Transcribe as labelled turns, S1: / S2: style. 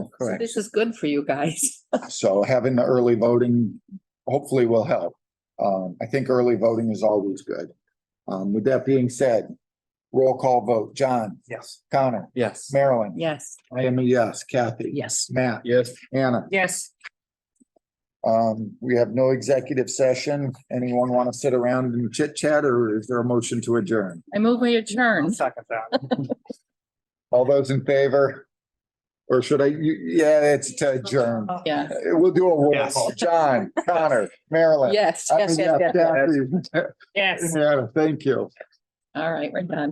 S1: So
S2: correct.
S1: This is good for you guys.
S2: So having the early voting hopefully will help. Um, I think early voting is always good. Um, with that being said, roll call vote, John,
S3: Yes.
S2: Connor,
S3: Yes.
S2: Marilyn.
S1: Yes.
S2: I am a yes, Kathy.
S1: Yes.
S2: Matt,
S3: Yes.
S2: Anna,
S1: Yes.
S2: um, we have no executive session. Anyone want to sit around and chit chat or is there a motion to adjourn?
S1: I move we adjourn.
S3: Second that.
S2: All those in favor? Or should I, you, yeah, it's to adjourn.
S1: Yeah.
S2: We'll do a roll
S3: Yes.
S2: call. John, Connor, Marilyn.
S1: Yes.
S2: I'm a
S1: Yes. yes, yes.
S2: Kathy.
S1: Yes.
S2: Yeah, thank you.
S1: All right, we're done.